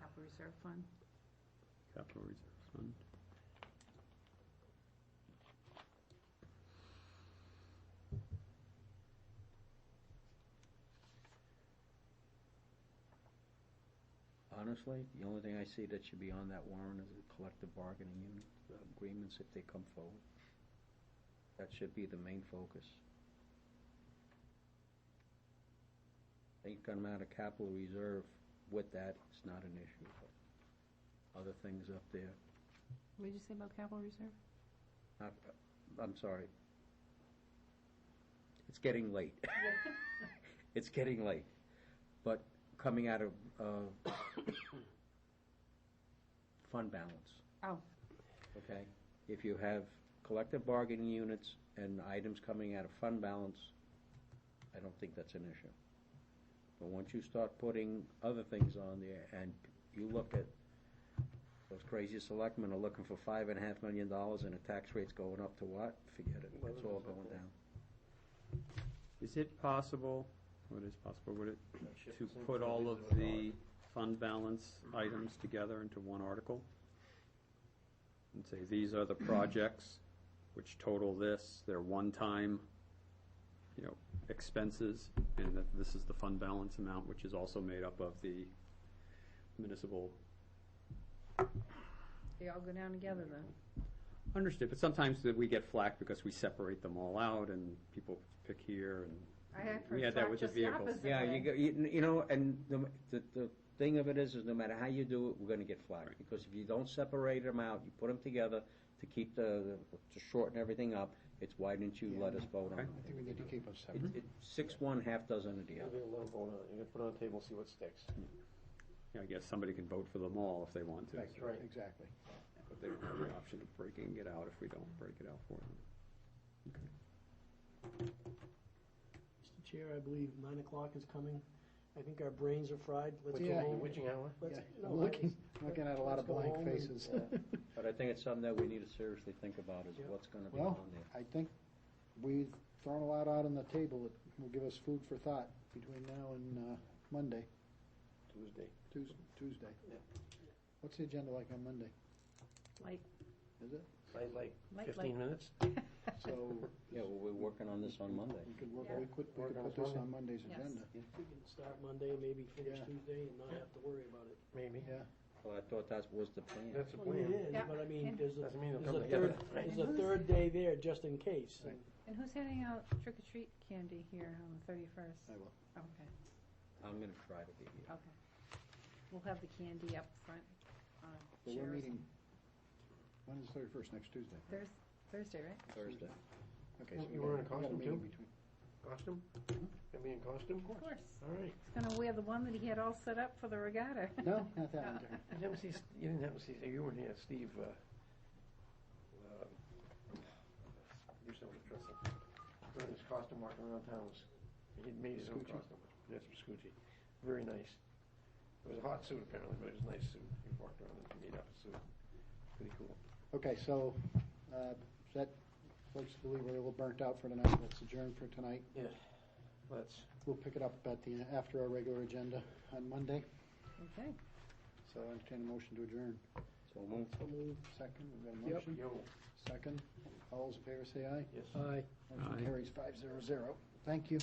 capital reserve fund. Capital Reserve Fund. Honestly, the only thing I see that should be on that warrant is the collective bargaining unit uh, agreements if they come forward. That should be the main focus. They come out of capital reserve with that, it's not an issue, but other things up there, What did you say about capital reserve? I, Uh, I'm sorry. It's getting late. It's getting late, but coming out of, uh, fund balance. Oh. Okay, if you have collective bargaining units and items coming out of fund balance, I don't think that's an issue. But once you start putting other things on there and you look at, those crazy selectmen are looking for five and a half million dollars and the tax rate's going up to what? Forget it, Well, it's it all is up going there. down. Is it possible, what is possible, would it, to Shipments put and all of things like the fund balance items together into one article? And say, these are the projects which total this, they're one-time, you know, expenses, and that this is the fund balance amount, which is also made up of the municipal They all go down together then? Understood, but sometimes that we get flack because we separate them all out and people pick here and. I had We had that with the just the vehicles. opposite Yeah, you, way. go- you, you know, and the, the, the thing of it is, is no matter how you do it, we're gonna get flagged. Because if you don't separate them out, you put them together to keep the, to shorten everything up, it's why didn't you let us vote on Okay. it? I think we need to keep them separate. Mm-hmm. It, it, six one, half dozen of the You're other. gonna let 'em vote on it. You're gonna put it on the table, see what sticks. Yeah, I guess somebody can vote for them all if they want to. That's right, exactly. But they don't have the option of breaking it out if we don't break it out for them. Mr. Chair, I believe nine o'clock is coming. I think our brains are fried. Let's Yeah. go home. Witching hour? Let's- Yeah, no, I'm looking, let's- looking at a lot let's of go blank home and- faces. But I think it's something that we need to seriously think about is Yeah. what's gonna be on Well, there. I think we've thrown a lot out on the table that will give us food for thought between now and uh, Monday, Tuesday. Tues- Tuesday. Yeah. What's the agenda like on Monday? Like, Is it? Like, like like, like, fifteen minutes? So Yeah, well, we're working on this on Monday. we could work, Yeah. we could, we Work could on put this Monday. on Monday's Yes. agenda. We can start Monday and maybe finish Yeah. Tuesday and not have to worry about it. Maybe. Yeah, Well, I thought that was the plan. That's the Well, it plan. is, Yeah. but I mean, And- there's a, Doesn't mean it'll there's come a third, together. right? there's a third day there just in case. Right. and who's handing out trick or treat candy here on the thirty-first? Oh, I will. Okay, I'm gonna try to be here. okay. We'll have the candy up front on But chairs. we're meeting, when is the thirty-first, next Tuesday? Thurs- Thursday, right? Thursday. Okay. You- so we you got- were in a we got costume, meeting too? between- Costume? Gonna be in costume? Mm-hmm. Of course. All right. He's gonna wear the one that he had all set up for the regatta. No, not that one, Gary. You didn't see, you didn't happen to see, you weren't here, Steve, uh, uh, used to dress up, wearing his costume walking around town. was- He had made his own Scucci? costume. Yes, Scucci. Very nice. It was a hot suit apparently, but it was a nice suit. He walked around in a made up suit. Pretty cool. Okay, so, uh, is that, folks believe we're a little burnt out for tonight, let's adjourn for tonight. Let's, We'll pick it up at the, after our regular agenda on Monday, Okay. so I entertain a motion to adjourn. So move. Second, we've got a motion. yo, Second, all those in favor say aye. yes. Aye. Aye. Motion carries five zero zero. Thank you.